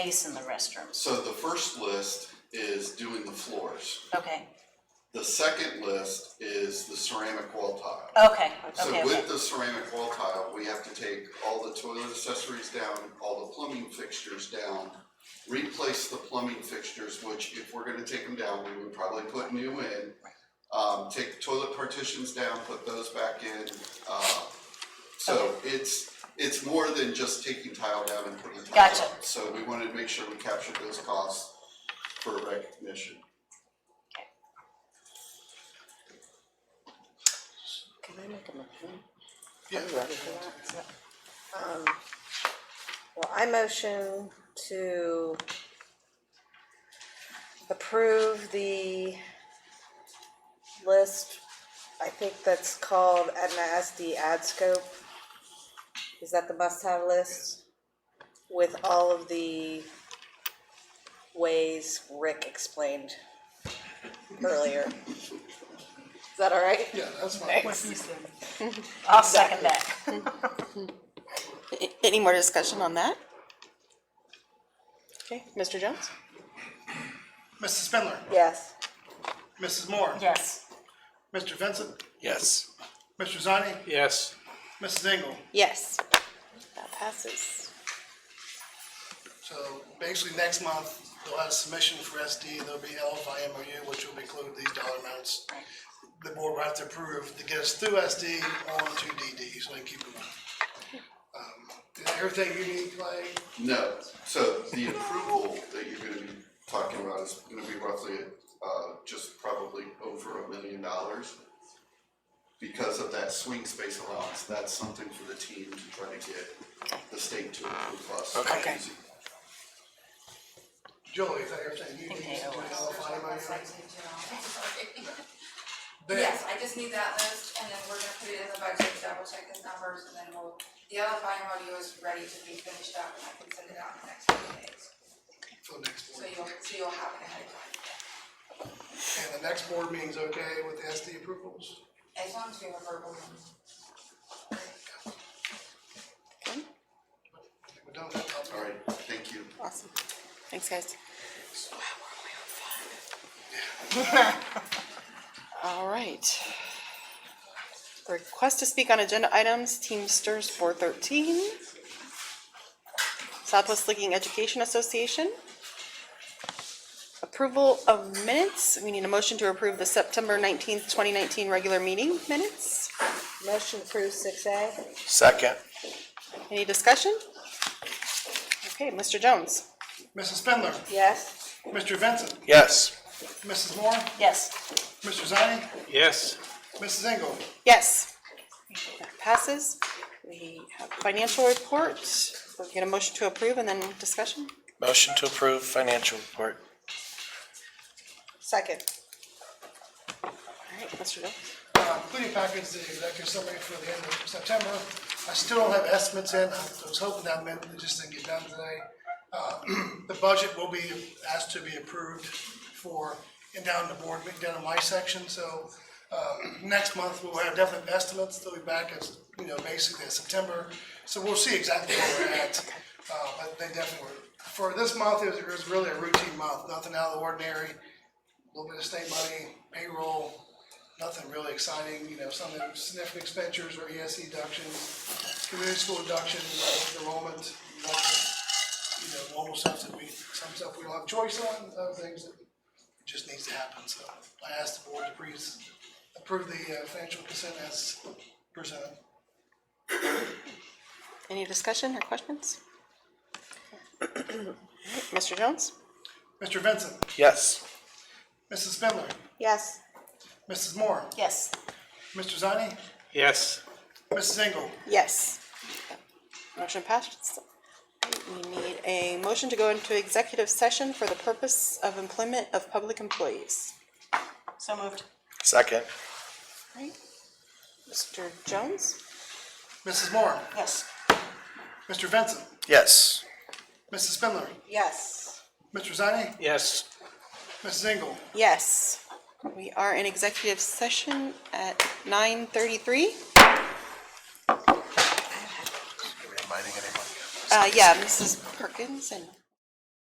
space in the restrooms, So the first list is doing the floors. okay, The second list is the ceramic wall tile. okay, So okay, okay, with the ceramic wall tile, we have to take all the toilet accessories down, all the plumbing fixtures down, replace the plumbing fixtures, which if we're gonna take them down, we would probably put new in. Um, take the toilet partitions down, put those back in, uh, so it's, it's more than just taking tile down and putting tile Gotcha. up. So we wanted to make sure we captured those costs for recognition. Can I make a motion? Yeah. Um, Well, I motion to approve the list, I think that's called Aetna SD Ad Scope. Is that the must-have list? With all of the ways Rick explained earlier. Is that all right? Yeah, that's fine. I'll second that. A- Any more discussion on that? Okay, Mr. Jones? Mrs. Spindler, Yes. Mrs. Moore, Yes, Mr. Vincent, Yes. Mr. Zani, Yes. Mrs. Engel. Yes. That passes. So basically, next month, they'll have a submission for SD, there'll be L by MOU, which will include these dollar amounts. The board will have to approve to get us through SD on to DD, so they can keep moving. Um, Is everything you need, Clay? No, so the approval that you're gonna be talking about is gonna be roughly, uh, just probably over a million dollars. Because of that swing space allowance, that's something for the team to try to get the state to approve us. Okay. Julie, is that everything you need to do they owe L by MOU? Then, Yes, I just need that list, and then we're gonna put it in the budget, double check his numbers, and then we'll, the LFI MOU is ready to be finished up, and I can send it out in the next few days. for the next So board. you'll, so you'll have it ahead of time, And the next board meeting's okay with the SD approvals? as long as we have a verbal. If we don't, that's all right. Alright, thank you. Awesome. Thanks, guys. All right. Request to speak on agenda items, Teamsters four thirteen. Southwest Licking Education Association. Approval of minutes. We need a motion to approve the September nineteenth, twenty nineteen regular meeting minutes. Motion approved six A. Second. Any discussion? Okay, Mr. Jones? Mrs. Spindler, Yes. Mr. Vincent, Yes. Mrs. Moore, yes, Mr. Zani, Yes. Mrs. Engel. Yes. That passes. We have financial report. We'll get a motion to approve and then discussion. Motion to approve financial report. Second. All right, Mr. Jones? Uh, Including package, the executive summary for the end of September. I still don't have estimates in. I was hoping that meant it just didn't get done today. Uh, The budget will be asked to be approved for, and down the board, down in my section, so uh, next month we'll have definite estimates. They'll be back as, you know, basically in September. So we'll see exactly where we're at. Uh, But they definitely were, for this month, it was- it was really a routine month, nothing out of the ordinary. A little bit of state money, payroll, nothing really exciting, you know, some significant expenditures or ES deductions, community school deductions, enrollment, you know, normal stuff that we, some stuff we don't have choice on, other things that just needs to happen, so I asked the board to please approve the uh, financial consent as presented. Any discussion or questions? All right, Mr. Jones? Mr. Vincent, Yes. Mrs. Spindler, Yes. Mrs. Moore, yes, Mr. Zani, Yes. Mrs. Engel. Yes. Motion passed. We need a motion to go into executive session for the purpose of employment of public employees. so moved, Second. All right. Mr. Jones? Mrs. Moore, yes. Mr. Vincent, Yes. Mrs. Spindler, Yes. Mr. Zani, Yes. Mrs. Engel. Yes, we are in executive session at nine thirty-three. Uh, yeah, Mrs. Perkins and